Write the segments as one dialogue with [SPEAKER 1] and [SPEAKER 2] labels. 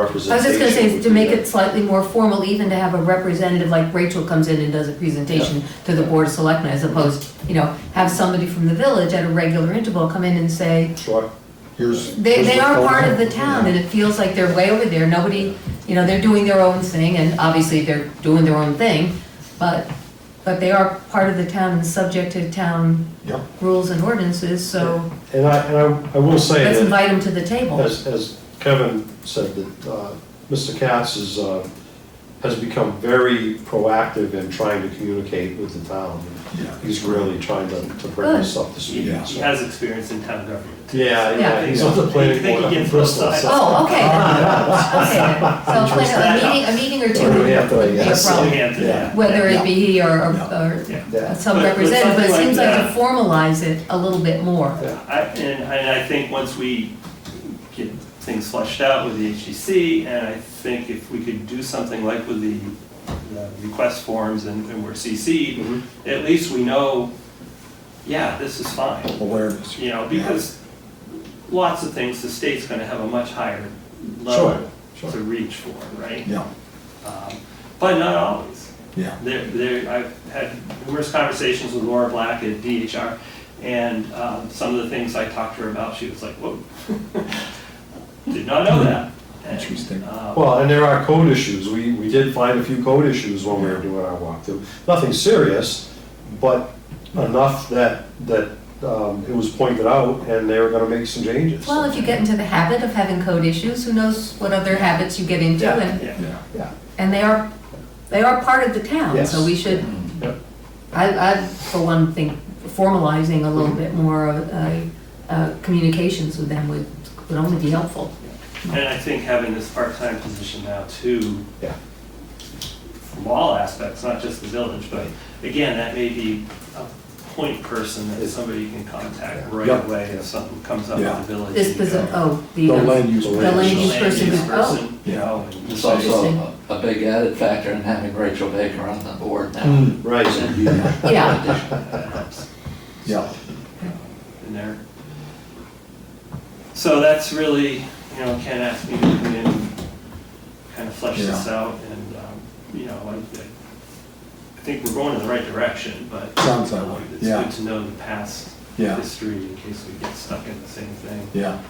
[SPEAKER 1] I was just gonna say,
[SPEAKER 2] representation.
[SPEAKER 1] to make it slightly more formal, even to have a representative like Rachel comes in and does a presentation to the Board of Selectmen, as opposed, you know, have somebody from the village at a regular interval come in and say,
[SPEAKER 2] Sure.
[SPEAKER 3] Here's.
[SPEAKER 1] they,
[SPEAKER 3] here's
[SPEAKER 1] they
[SPEAKER 3] what's
[SPEAKER 1] are
[SPEAKER 3] going
[SPEAKER 1] part
[SPEAKER 3] on.
[SPEAKER 1] of the town, and it feels like they're way over there, nobody, you know, they're doing their own thing, and obviously they're doing their own thing, but, but they are part of the town and subject to town
[SPEAKER 3] Yeah.
[SPEAKER 1] rules and ordinances, so
[SPEAKER 4] And I, and I, I will say
[SPEAKER 1] let's
[SPEAKER 4] that,
[SPEAKER 1] invite them to the table.
[SPEAKER 4] as, as Kevin said, that, uh, Mr. Katz is, uh, has become very proactive in trying to communicate with the town.
[SPEAKER 3] Yeah.
[SPEAKER 4] He's really trying to, to bring this up to speed.
[SPEAKER 5] He
[SPEAKER 3] Yeah.
[SPEAKER 5] he has experience in town government. too.
[SPEAKER 4] Yeah, yeah,
[SPEAKER 1] Yeah.
[SPEAKER 4] he's on the
[SPEAKER 5] I
[SPEAKER 4] planning
[SPEAKER 5] think
[SPEAKER 4] board
[SPEAKER 5] he
[SPEAKER 4] up in
[SPEAKER 5] gets
[SPEAKER 4] Bristol.
[SPEAKER 5] both
[SPEAKER 4] so-
[SPEAKER 1] Oh, okay, okay, then. so plan a meeting, a meeting or two
[SPEAKER 4] Or
[SPEAKER 1] would
[SPEAKER 4] we have to,
[SPEAKER 1] be a
[SPEAKER 4] yes.
[SPEAKER 1] problem.
[SPEAKER 5] We have to, yeah.
[SPEAKER 1] whether it be he or, or
[SPEAKER 3] Yeah.
[SPEAKER 1] or
[SPEAKER 5] Yeah.
[SPEAKER 4] Yeah.
[SPEAKER 1] some
[SPEAKER 5] But- but
[SPEAKER 1] representative, but it
[SPEAKER 5] something
[SPEAKER 1] seems
[SPEAKER 5] like
[SPEAKER 1] like to
[SPEAKER 5] that.
[SPEAKER 1] formalize it a little bit more.
[SPEAKER 5] I, and, and I think once we get things fleshed out with the HGC, and I think if we could do something like with the, the request forms and, and we're CC'd,
[SPEAKER 3] Mm-hmm.
[SPEAKER 5] at least we know, yeah, this is fine.
[SPEAKER 3] Awareness.
[SPEAKER 5] You know, because lots of things, the state's gonna have a much higher
[SPEAKER 3] Sure,
[SPEAKER 5] level
[SPEAKER 3] sure.
[SPEAKER 5] to reach for, right?
[SPEAKER 3] Yeah,
[SPEAKER 5] Um, But not always.
[SPEAKER 3] yeah.
[SPEAKER 5] There, there, I've had numerous conversations with Laura Black at DHR, and um, some of the things I talked to her about, she was like, whoa, did not know that. And,
[SPEAKER 3] Interesting.
[SPEAKER 5] um,
[SPEAKER 4] Well, and there are code issues. We, we did find a few code issues when we were doing our walkthrough. Nothing serious, but enough that, that um, it was pointed out and they were gonna make some changes.
[SPEAKER 1] Well, if you get into the habit of having code issues, who knows what other habits you get into,
[SPEAKER 4] Yeah.
[SPEAKER 1] and,
[SPEAKER 5] yeah.
[SPEAKER 3] Yeah.
[SPEAKER 4] Yeah,
[SPEAKER 1] and they are, they are part of the town, so
[SPEAKER 4] Yes.
[SPEAKER 1] we should,
[SPEAKER 4] yeah.
[SPEAKER 1] I, I, for one thing, formalizing a little bit more of, uh, uh, communications with them would, would only be helpful.
[SPEAKER 5] And I think having this part-time position now too.
[SPEAKER 4] Yeah.
[SPEAKER 5] From all aspects, not just the village, but again, that may be a point person that somebody can contact right
[SPEAKER 4] Yeah.
[SPEAKER 5] away if something comes up
[SPEAKER 3] Yeah.
[SPEAKER 5] with the village.
[SPEAKER 1] This,
[SPEAKER 5] and you
[SPEAKER 1] posi-
[SPEAKER 4] uh,
[SPEAKER 5] go,
[SPEAKER 1] oh, the,
[SPEAKER 3] The
[SPEAKER 1] um,
[SPEAKER 3] land use.
[SPEAKER 4] The
[SPEAKER 1] the land use
[SPEAKER 5] "Land
[SPEAKER 1] person, who-
[SPEAKER 5] use
[SPEAKER 1] oh,
[SPEAKER 5] person," you
[SPEAKER 3] yeah.
[SPEAKER 5] know, and
[SPEAKER 6] It's
[SPEAKER 5] so-
[SPEAKER 6] also a a big added factor in having Rachel Baker on the board now.
[SPEAKER 3] Mm,
[SPEAKER 4] Right.
[SPEAKER 3] Yeah,
[SPEAKER 1] yeah,
[SPEAKER 5] that uh, helps.
[SPEAKER 3] yeah.
[SPEAKER 5] in there. So that's really, you know, Ken asked me to come in and kind of flesh this out and, um, you know, I, I think we're going in the right direction, but.
[SPEAKER 3] Sounds that
[SPEAKER 5] um,
[SPEAKER 3] way,
[SPEAKER 5] It's
[SPEAKER 3] yeah.
[SPEAKER 5] good to know the past
[SPEAKER 3] Yeah.
[SPEAKER 5] history in case we get stuck in the same thing.
[SPEAKER 3] Yeah,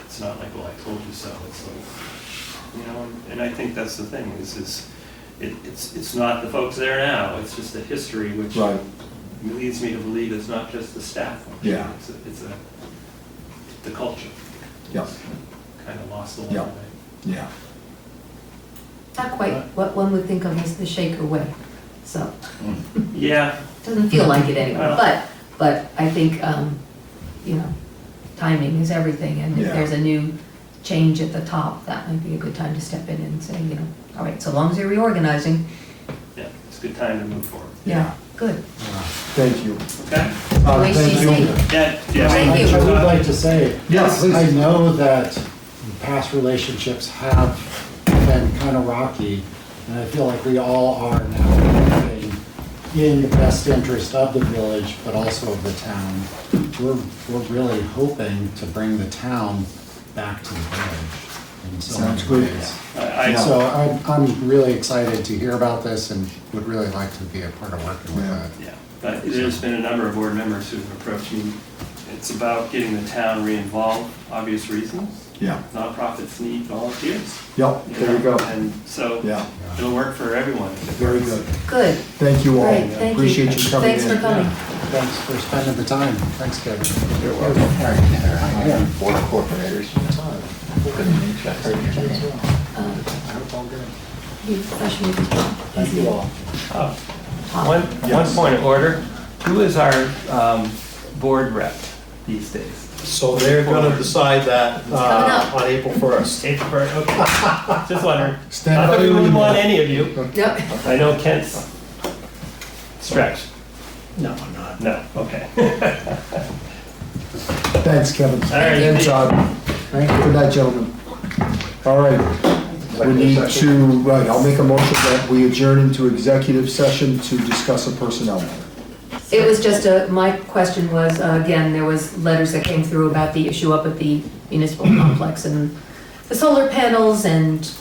[SPEAKER 5] It's not like, well, I told you so, it's like, you know, and- and I think that's the thing, is, is, it, it's, it's not the folks there now, it's just the history, which
[SPEAKER 3] right,
[SPEAKER 5] leads me to believe it's not just the staff. function.
[SPEAKER 3] Yeah.
[SPEAKER 5] It's, a- it's a, the culture,
[SPEAKER 3] yeah,
[SPEAKER 5] kind of lost along the
[SPEAKER 3] Yeah.
[SPEAKER 5] way.
[SPEAKER 3] yeah.
[SPEAKER 1] not quite what one would think of as the Shaker way, so.
[SPEAKER 5] Yeah,
[SPEAKER 1] Doesn't feel like it anymore,
[SPEAKER 5] Well-
[SPEAKER 1] but, but I think, um, you know, timing is everything, and if
[SPEAKER 3] Yeah.
[SPEAKER 1] there's a new change at the top, that might be a good time to step in and say, you know, all right, so long as you're reorganizing,
[SPEAKER 5] yeah, it's a good time to move forward,
[SPEAKER 1] yeah, good.
[SPEAKER 3] Thank you.
[SPEAKER 5] okay?
[SPEAKER 7] Uh, thank you.
[SPEAKER 1] OHCC.
[SPEAKER 5] Yeah, yeah.
[SPEAKER 1] Thank you.
[SPEAKER 7] I would like to say.
[SPEAKER 3] Yes, please.
[SPEAKER 7] I know that past relationships have been kind of rocky, and I feel like we all are now working in the best interest of the village, but also of the town. We're, we're really hoping to bring the town back to the village in so many
[SPEAKER 3] Sounds good.
[SPEAKER 7] ways.
[SPEAKER 5] I, I,
[SPEAKER 7] So I'm, I'm really excited to hear about this and would really like to be a part of working with
[SPEAKER 3] Yeah.
[SPEAKER 7] it.
[SPEAKER 5] yeah, but there's been a number of board members who've approached me. It's about getting the town re-involved, obvious reasons.
[SPEAKER 3] Yeah,
[SPEAKER 5] Nonprofits need volunteers.
[SPEAKER 3] yep,
[SPEAKER 5] you
[SPEAKER 3] there you
[SPEAKER 5] know,
[SPEAKER 3] go.
[SPEAKER 5] And so
[SPEAKER 3] Yeah.
[SPEAKER 5] it'll work for everyone.
[SPEAKER 3] Very good.
[SPEAKER 1] Good,
[SPEAKER 3] Thank you all.
[SPEAKER 1] great, thank you.
[SPEAKER 3] Appreciate you coming in.
[SPEAKER 1] Thanks for coming.
[SPEAKER 7] Thanks for spending the time. Thanks, Kevin.
[SPEAKER 3] You're welcome.
[SPEAKER 7] I am.
[SPEAKER 6] Board of Corporators. Couldn't meet you. I heard you.
[SPEAKER 1] You fresh meat.
[SPEAKER 7] Thank you all.
[SPEAKER 8] One, one point of order, who is our um, board rep these days?
[SPEAKER 4] So they're gonna decide that
[SPEAKER 1] coming
[SPEAKER 4] uh,
[SPEAKER 1] up.
[SPEAKER 4] on April first.
[SPEAKER 8] April first, okay. Just wondering.
[SPEAKER 7] Stand
[SPEAKER 8] Not that we
[SPEAKER 7] by
[SPEAKER 8] wouldn't
[SPEAKER 7] your-
[SPEAKER 8] want any of you.
[SPEAKER 1] Yep.
[SPEAKER 8] I know Kent's stretched.
[SPEAKER 7] No, I'm not.
[SPEAKER 8] No, okay.
[SPEAKER 3] Thanks, Kevin.
[SPEAKER 8] right.
[SPEAKER 3] And Todd.
[SPEAKER 7] Thank you.
[SPEAKER 3] Good night, gentlemen. All right, we need to, right, I'll make a motion that we adjourn into executive session to discuss a personnel matter.
[SPEAKER 1] It was just a, my question was, uh, again, there was letters that came through about the issue up at the municipal complex and the solar panels and